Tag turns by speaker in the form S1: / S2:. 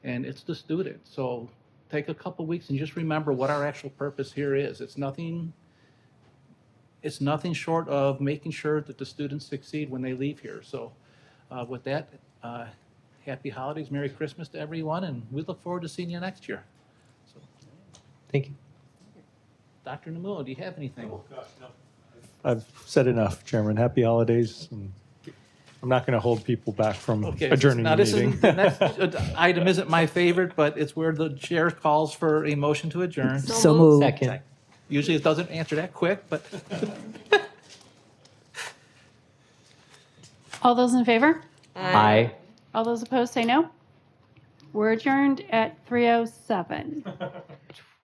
S1: and it's the student. So take a couple weeks and just remember what our actual purpose here is. It's nothing, it's nothing short of making sure that the students succeed when they leave here. So uh, with that, uh, happy holidays, Merry Christmas to everyone, and we look forward to seeing you next year. So,
S2: Thank you.
S1: Dr. Namulo, do you have anything?
S2: I've said enough, Chairman. Happy holidays. and I'm not going to hold people back from
S1: Okay.
S2: adjourning
S1: now
S2: the
S1: this
S2: meeting.
S1: Isn't, the next uh, item isn't my favorite, but it's where the chair calls for a motion to adjourn.
S3: So moved.
S2: Second.
S1: Usually it doesn't answer that quick, but
S4: All those in favor?
S3: Aye.
S4: oh All those opposed, say no. We're adjourned at 3:07.